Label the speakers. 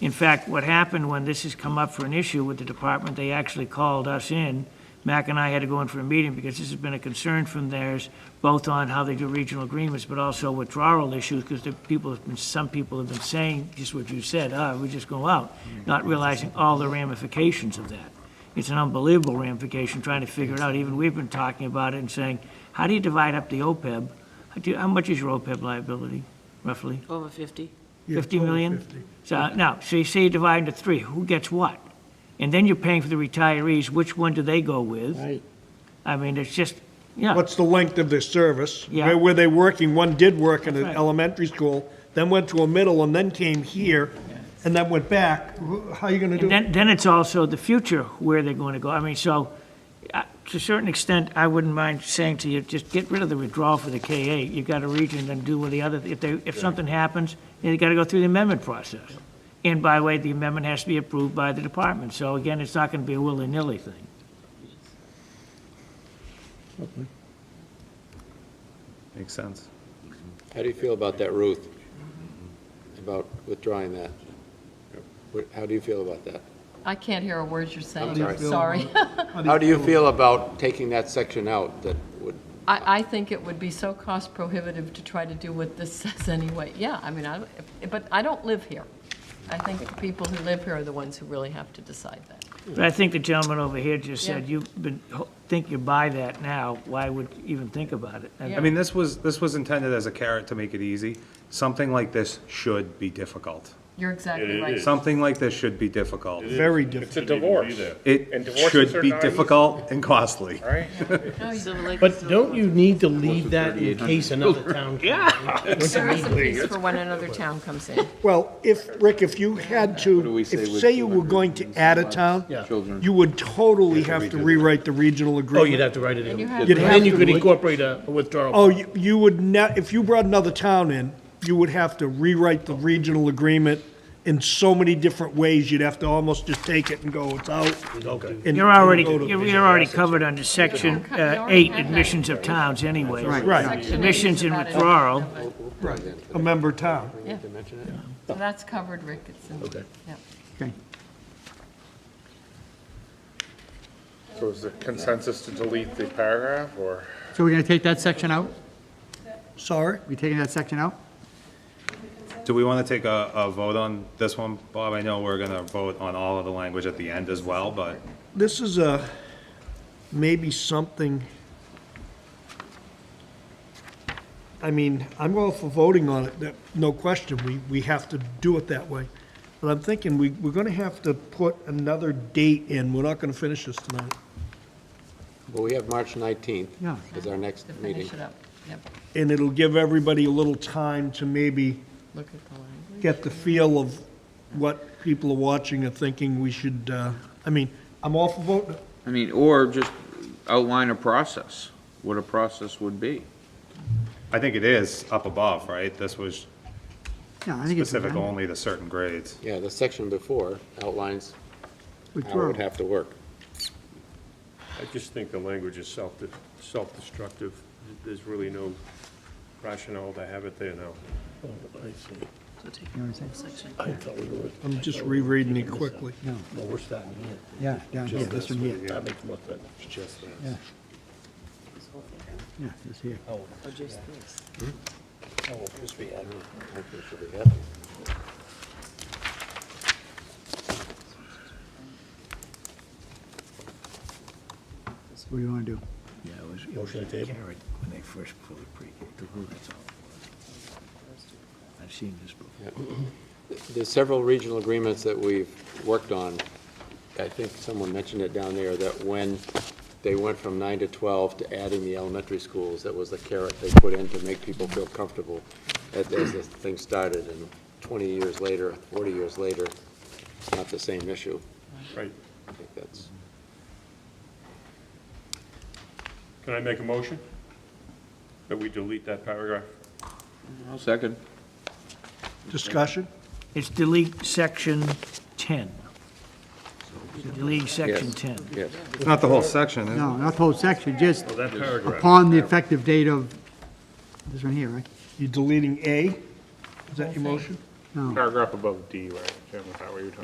Speaker 1: In fact, what happened when this has come up for an issue with the department, they actually called us in. Mac and I had to go in for a meeting because this has been a concern from theirs, both on how they do regional agreements, but also withdrawal issues, because the people have been, some people have been saying, just what you said, ah, we just go out, not realizing all the ramifications of that. It's an unbelievable ramification, trying to figure it out. Even we've been talking about it and saying, how do you divide up the OPEB? How do- How much is your OPEB liability, roughly?
Speaker 2: Over 50.
Speaker 1: 50 million? So, now, so you say you divide into three, who gets what? And then you're paying for the retirees, which one do they go with?
Speaker 3: Right.
Speaker 1: I mean, it's just, yeah,
Speaker 3: What's the length of their service?
Speaker 1: Yeah.
Speaker 3: Where were they working? One did work in an
Speaker 1: right.
Speaker 3: elementary school, then went to a middle, and then came here, and then went back. Wh- How are you gonna
Speaker 1: and
Speaker 3: do it?
Speaker 1: then, then it's also the future, where they're going to go. I mean, so, uh, to a certain extent, I wouldn't mind saying to you, just get rid of the withdrawal for the KA. You've got a region, then do with the other, if they, if something happens, then you gotta go through the amendment process. And by the way, the amendment has to be approved by the department, so again, it's not gonna be a willy-nilly thing.
Speaker 4: Makes sense.
Speaker 5: How do you feel about that, Ruth? About withdrawing that? What- How do you feel about that?
Speaker 6: I can't hear a word you're saying.
Speaker 5: sorry.
Speaker 6: Sorry.
Speaker 5: How do you feel about taking that section out that would,
Speaker 6: I, I think it would be so cost prohibitive to try to do what this says anyway. Yeah, I mean, I, but I don't live here. I think the people who live here are the ones who really have to decide that.
Speaker 1: But I think the gentleman over here just said,
Speaker 6: Yeah.
Speaker 1: you've been, think you buy that now, why would you even think about it? And
Speaker 4: I mean, this was, this was intended as a carrot to make it easy. Something like this should be difficult.
Speaker 6: You're exactly
Speaker 7: It
Speaker 6: right.
Speaker 7: is.
Speaker 4: Something like this should be difficult.
Speaker 3: Very
Speaker 7: It's a
Speaker 3: different.
Speaker 7: divorce. And
Speaker 4: It
Speaker 7: divorces
Speaker 4: should
Speaker 7: are
Speaker 4: be
Speaker 7: not easy.
Speaker 4: difficult and costly.
Speaker 7: All right.
Speaker 2: Civil Lake is
Speaker 8: But
Speaker 2: still-
Speaker 8: don't you need to leave that in case another town?
Speaker 9: Oh,
Speaker 8: Yeah.
Speaker 6: There is a piece for when another town comes in.
Speaker 3: Well, if, Rick, if you had to,
Speaker 5: we say
Speaker 3: if,
Speaker 5: with
Speaker 3: say you were going to add a town,
Speaker 8: Yeah.
Speaker 3: you would totally have to rewrite the regional
Speaker 8: Oh, you'd
Speaker 3: agreement.
Speaker 8: have to write it in.
Speaker 6: you have
Speaker 8: And
Speaker 3: to-
Speaker 8: then you could incorporate a a withdrawal.
Speaker 3: Oh, you, you would not, if you brought another town in, you would have to rewrite the regional agreement in so many different ways. You'd have to almost just take it and go, it's out.
Speaker 8: Okay.
Speaker 3: and-
Speaker 1: You're already,
Speaker 3: and go to-
Speaker 1: you're you're already covered under section uh,
Speaker 6: You already
Speaker 1: eight,
Speaker 6: had that.
Speaker 1: admissions of towns anyway.
Speaker 3: Right,
Speaker 1: Admissions and
Speaker 6: About it.
Speaker 1: withdrawal.
Speaker 3: a member town.
Speaker 6: Yeah. So that's covered, Rick. It's in.
Speaker 8: Okay.
Speaker 6: yeah.
Speaker 7: So is the consensus to delete the paragraph or?
Speaker 10: So we're going to take that section out?
Speaker 3: Sorry?
Speaker 10: We taking that section out?
Speaker 4: Do we want to take a, a vote on this one, Bob? I know we're gonna vote on all of the language at the end as well, but
Speaker 3: This is a, maybe something, I mean, I'm all for voting on it, that- no question, we, we have to do it that way. But I'm thinking, we, we're gonna have to put another date in, we're not gonna finish this tonight.
Speaker 5: well, we have March 19th
Speaker 10: Yeah.
Speaker 5: as our next
Speaker 6: To
Speaker 5: meeting.
Speaker 6: finish it up. Yep.
Speaker 3: And it'll give everybody a little time to maybe
Speaker 6: Look at the language.
Speaker 3: get the feel of what people are watching and thinking we should, uh, I mean, I'm all for voting,
Speaker 9: I mean, or just outline a process, what a process would be.
Speaker 4: I think it is up above, right? This was
Speaker 10: Yeah, I think it's.
Speaker 4: specific only to certain grades.
Speaker 5: Yeah, the section before outlines how it
Speaker 10: Withdrawal.
Speaker 5: would have to work.
Speaker 7: I just think the language is self, self-destructive. There's really no rationale to have it there now.
Speaker 8: Oh,
Speaker 2: So take out that section.
Speaker 3: I'm just rereading it quickly.
Speaker 8: No, we're starting here.
Speaker 10: Yeah, down here, this one here.
Speaker 8: That makes more sense.
Speaker 10: Yeah. Yeah, this here.
Speaker 2: Or just this.
Speaker 10: What do you want to do?
Speaker 8: Yeah, it was. Motion to table.
Speaker 1: When they first pull the pre, the I've seen this before.
Speaker 5: There's several regional agreements that we've worked on. I think someone mentioned it down there, that when they went from nine to 12 to adding the elementary schools, that was the carrot they put in to make people feel comfortable as, as this thing started, and 20 years later, 40 years later, it's not the same issue.
Speaker 7: Right.
Speaker 5: I think that's,
Speaker 7: Can I make a motion? That we delete that paragraph?
Speaker 9: Second.
Speaker 3: Discussion?
Speaker 1: It's delete section 10. Delete section 10.
Speaker 5: yes.
Speaker 4: It's not the whole section, is it?
Speaker 10: No, not the whole section, just
Speaker 7: Oh, That paragraph.
Speaker 10: upon the effective date of, this one here, right?
Speaker 3: You deleting A? Is that your motion?
Speaker 11: No.
Speaker 8: Paragraph above D, right, Jim, is that what you're talking